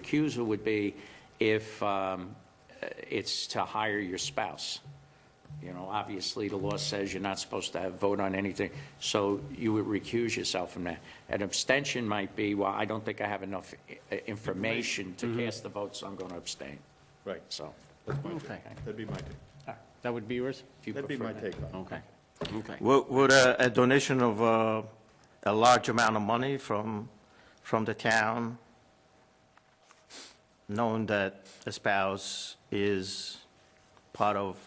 recusal would be if um, it's to hire your spouse. You know, obviously, the law says you're not supposed to have vote on anything, so you would recuse yourself from that. An abstention might be, well, I don't think I have enough i- information Mm-hmm. to cast the vote, so I'm going to abstain. Right, So, that's my take. Okay. That'd be my take. That would be yours? if you That'd be prefer my that. take on Okay. Okay. Would, would a a donation of uh, a large amount of money from, from the town, knowing that a spouse is part of,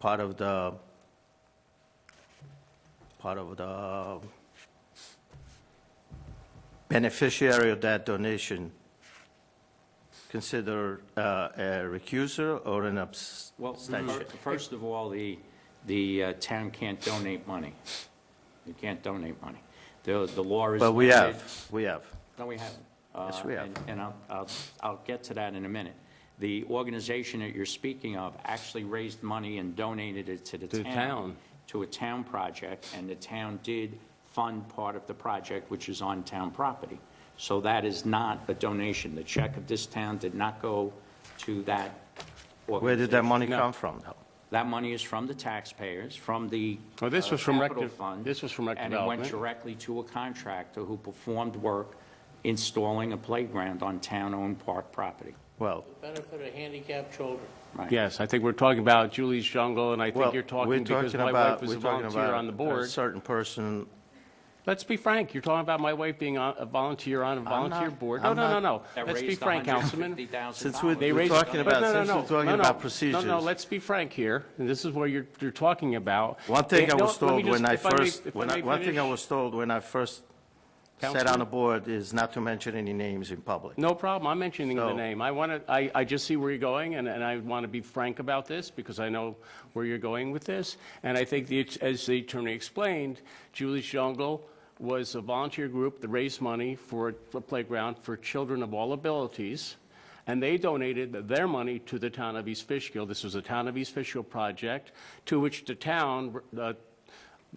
part of the, part of the beneficiary of that donation, consider uh, a recuser or an Well, abstention? fir- first of all, the, the uh, town can't donate money. You can't donate money. The, the law is... But we limited. have, we have. No, we haven't. Yes, Uh, we have. and- And I'll, I'll, I'll get to that in a minute. The organization that you're speaking of actually raised money and donated it to the To the town. town. To a town project, and the town did fund part of the project, which is on town property. So that is not a donation. The check of this town did not go to that organization. Where did that money come from, though? That money is from the taxpayers, from the. Well, Oh, this uh, was from rec capital de- fund, this was from rec And it went development. directly to a contractor who performed work installing a playground on town-owned park property, Well, benefit of handicapped children. right? Yes, I think we're talking about Julie's Jungle, and I well, think we're you're talking talking because my wife about, was we're a talking volunteer about on the a board. certain person, Let's be frank, you're talking about my wife being on- a volunteer on a volunteer not- board. No, I'm no, no, not- no. That Let's be raised frank, Councilman. $150,000. Since we're- They We're raised- talking about- No, no, since we're no, talking no, no. about No, no, procedures. let's be frank here, and this is what you're, you're talking about. one thing Yeah, I no, was let me told just- when I if may- first, if when may I- one thing I finish. was told when I first sat on Councilman? the board is not to mention any names in public. No problem, I'm mentioning the So- name. I want to, I, I just see where you're going, and, and I want to be frank about this, because I know where you're going with this. And I think, the as the attorney explained, Julie's Jungle was a volunteer group that raised money for a playground for children of all abilities, and they donated their money to the town of East Fishkill. This was a town of East Fishkill project, to which the town, uh,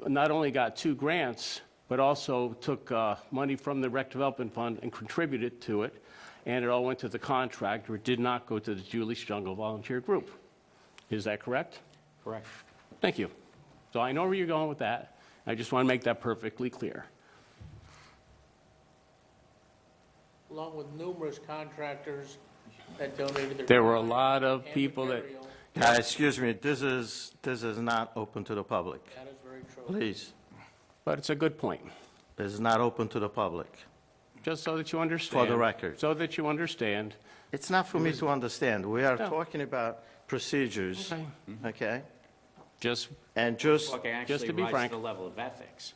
not only got two grants, but also took uh, money from the rec development fund and contributed to it, and it all went to the contractor. It did not go to the Julie's Jungle Volunteer Group. Is that correct? Correct. Thank you. So I know where you're going with that. I just want to make that perfectly clear. along with numerous contractors that donated their. There were a time lot of and people that- material. Uh, Excuse me, this is, this is not open to the public. That is very true. Please, But it's a good point, this is not open to the public. just so that you understand. record. So that you understand. It's not for me to understand. We are No. talking about procedures, Okay. okay? Just, And just, Okay, Just actually to be rise to frank. Mm-hmm. the level of ethics.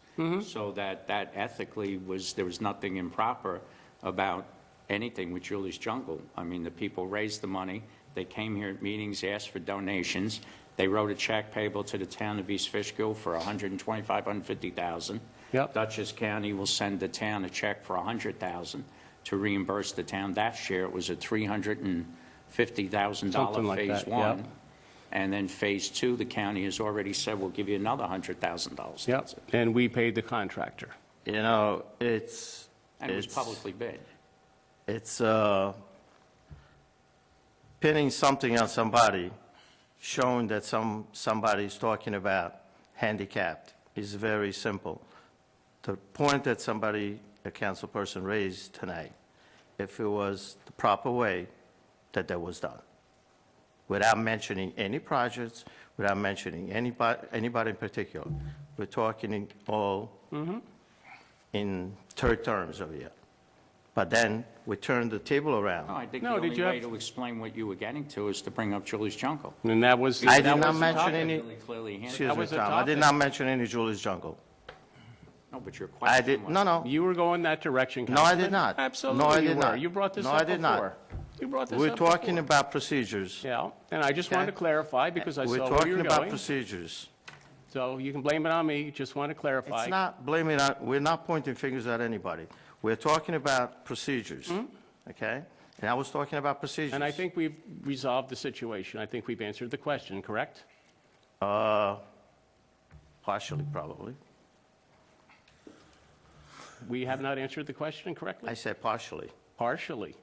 So that, that ethically was, there was nothing improper about anything with Julie's Jungle. I mean, the people raised the money, they came here at meetings, asked for donations, they wrote a check payable to the town of East Fishkill for $125,000, $150,000. Yep. Dutchess County will send the town a check for $100,000 to reimburse the town that share. It was a $350,000 Something like Phase that, yeah. One. And then Phase Two, the county has already said, we'll give you another $100,000. yep, and we paid the contractor. you know, it's. And it was it's- publicly bid. it's uh, pinning something on somebody, showing that some, somebody's talking about handicapped, is very simple. The point that somebody, a council person raised tonight, if it was the proper way that that was done, without mentioning any projects, without mentioning anybody, anybody in particular, we're talking in all in third terms over here. But then we turned the table No, I around. think the No, did only you way have- to explain what you were getting to is to bring up Julie's Jungle. And that was. I that did not was the mention topic. any, Really clearly handled. excuse me, was the Tom, I did topic. not mention any Julie's Jungle. No, but your I question was. did, no, no, You were going that direction, No, I Councilman. did not. No, I Absolutely you did were. not. You brought this No, up I before. did not. You brought this we're up talking before. about procedures. Yeah, and I just wanted to Okay. clarify because I We're saw where you talking were about going. procedures. So you can blame it on me, just want to clarify. It's not blaming, on- we're not pointing fingers at anybody. We're talking about procedures, okay? And I was talking about procedures. And I think we've resolved the situation. I think we've answered the question, correct? Partially, probably. We have not answered the question correctly? I said partially. partially.